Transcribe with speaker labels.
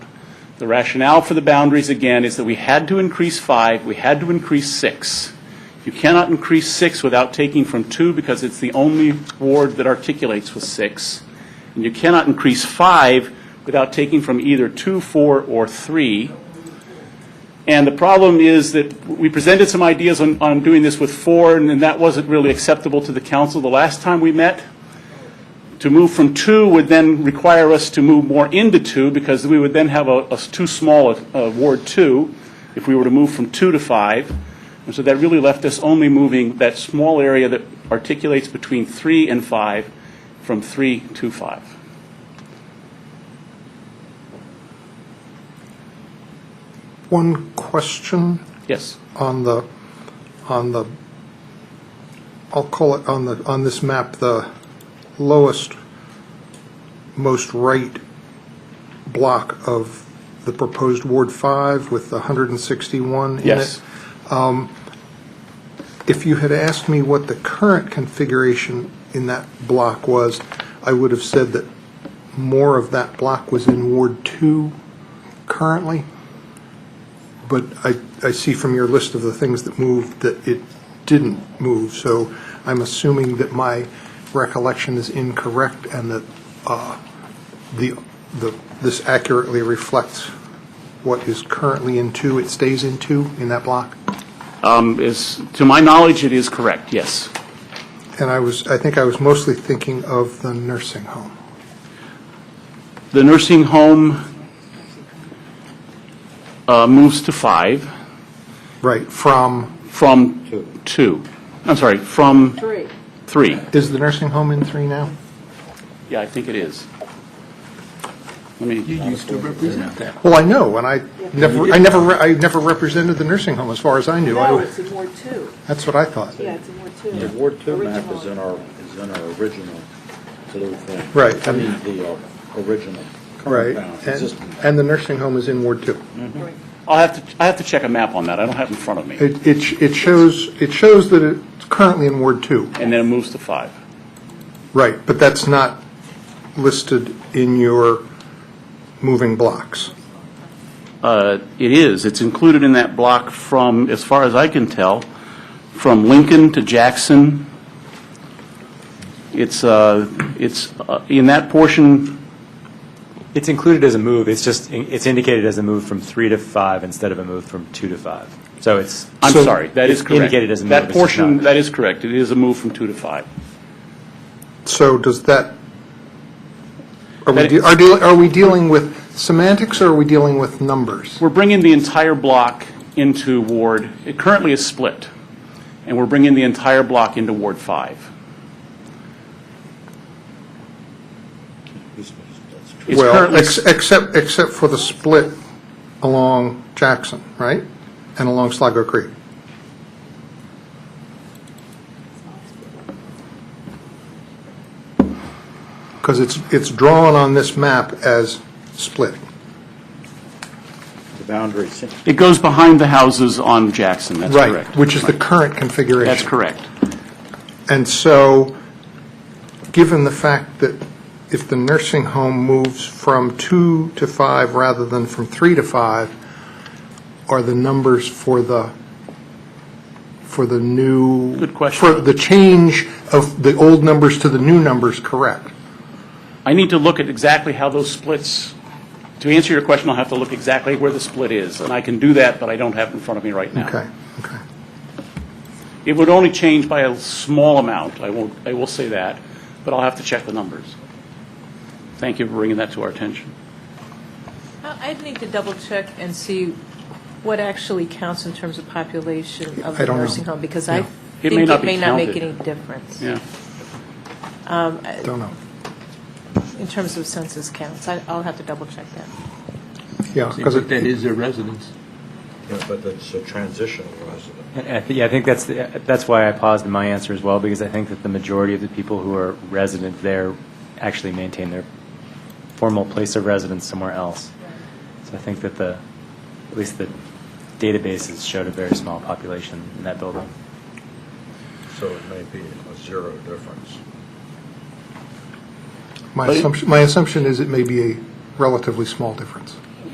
Speaker 1: The rationale for the boundaries, again, is that we had to increase five, we had to increase six. You cannot increase six without taking from two because it's the only ward that articulates with six. And you cannot increase five without taking from either two, four, or three. And the problem is that we presented some ideas on, on doing this with four, and then that wasn't really acceptable to the council the last time we met. To move from two would then require us to move more into two, because we would then have a, a s- too small a, a Ward Two, if we were to move from two to five. And so that really left us only moving that small area that articulates between three and five, from three to five.
Speaker 2: One question
Speaker 1: Yes?
Speaker 2: on the, on the, I'll call it, on the, on this map, the lowest, most right block of the proposed Ward 5 with the 161 in it.
Speaker 1: Yes.
Speaker 2: If you had asked me what the current configuration in that block was, I would have said that more of that block was in Ward 2 currently. But I, I see from your list of the things that moved that it didn't move, so I'm assuming that my recollection is incorrect and that uh, the, the, this accurately reflects what is currently in 2, it stays in 2 in that block?
Speaker 1: Um, is, to my knowledge, it is correct, yes.
Speaker 2: And I was, I think I was mostly thinking of the nursing home.
Speaker 1: The nursing home uh, moves to five
Speaker 2: Right, from,
Speaker 1: from two. I'm sorry, from
Speaker 3: Three.
Speaker 1: three.
Speaker 2: is the nursing home in three now?
Speaker 1: Yeah, I think it is. Let me,
Speaker 4: used to represent that.
Speaker 2: Well, I know, and I never, I never, re- I never represented the nursing home as far as I knew. I
Speaker 3: No,
Speaker 2: would-
Speaker 3: it's in Ward Two.
Speaker 2: That's what I thought.
Speaker 3: Yeah, it's in Ward Two.
Speaker 4: The Ward Two map
Speaker 3: Original.
Speaker 4: is in our, is in our original blue thing.
Speaker 2: Right.
Speaker 4: I mean, the uh, original
Speaker 2: Right,
Speaker 4: compound,
Speaker 2: and,
Speaker 4: existing.
Speaker 2: and the nursing home is in Ward Two.
Speaker 3: Right.
Speaker 1: I'll have to, I have to check a map on that, I don't have it in front of me.
Speaker 2: It, it, sh- it shows, it shows that it's currently in Ward Two,
Speaker 1: And then it moves to five.
Speaker 2: right, but that's not listed in your moving blocks.
Speaker 1: Uh, It is, it's included in that block from, as far as I can tell, from Lincoln to Jackson. It's, uh, it's, uh, in that portion,
Speaker 5: It's included as a move, it's just, it's indicated as a move from three to five instead of a move from two to five. So it's.
Speaker 1: I'm
Speaker 5: So
Speaker 1: sorry, that is
Speaker 5: it's
Speaker 1: correct.
Speaker 5: Indicated as a move.
Speaker 1: That
Speaker 5: it's just
Speaker 1: portion,
Speaker 5: not.
Speaker 1: that is correct, it is a move from two to five.
Speaker 2: So does that, are we,
Speaker 1: That-
Speaker 2: de- are deal- are we dealing with semantics or are we dealing with numbers?
Speaker 1: We're bringing the entire block into Ward, it currently is split, and we're bringing the entire block into Ward 5.
Speaker 4: That's true.
Speaker 1: It's
Speaker 2: Well,
Speaker 1: currently-
Speaker 2: ex- except, except for the split along Jackson, right? And along Sligo Creek. Because it's, it's drawn on this map as split.
Speaker 4: The boundary, se-
Speaker 1: It goes behind the houses on Jackson, that's correct.
Speaker 2: Right, which is the current configuration.
Speaker 1: That's correct.
Speaker 2: And so, given the fact that if the nursing home moves from two to five rather than from three to five, are the numbers for the, for the new?
Speaker 1: Good question.
Speaker 2: For the change of the old numbers to the new numbers correct?
Speaker 1: I need to look at exactly how those splits, to answer your question, I'll have to look exactly where the split is, and I can do that, but I don't have it in front of me right now.
Speaker 2: Okay, okay.
Speaker 1: It would only change by a small amount, I won't, I will say that, but I'll have to check the numbers. Thank you for bringing that to our attention.
Speaker 6: I- I'd need to double check and see what actually counts in terms of population of
Speaker 2: I
Speaker 6: the
Speaker 2: don't know.
Speaker 6: nursing home, because I
Speaker 2: Yeah.
Speaker 1: It may
Speaker 6: think
Speaker 1: not
Speaker 6: it
Speaker 1: be
Speaker 6: may not make
Speaker 1: counted.
Speaker 6: any difference
Speaker 1: Yeah.
Speaker 2: Don't know.
Speaker 1: Uh,
Speaker 6: in terms of census counts. I- I'll have to double check that.
Speaker 2: Yeah, because
Speaker 7: But
Speaker 2: Uh, it,
Speaker 7: that is their residence.
Speaker 4: yeah, but it's a transitional resident.
Speaker 5: And I thi- Yeah, I think that's, the- that's why I paused in my answer as well, because I think that the majority of the people who are resident there actually maintain their formal place of residence somewhere else. So I think that the, at least the databases showed a very small population in that building.
Speaker 4: So it may be a zero difference.
Speaker 2: my assumption, my assumption is it may be a relatively small difference.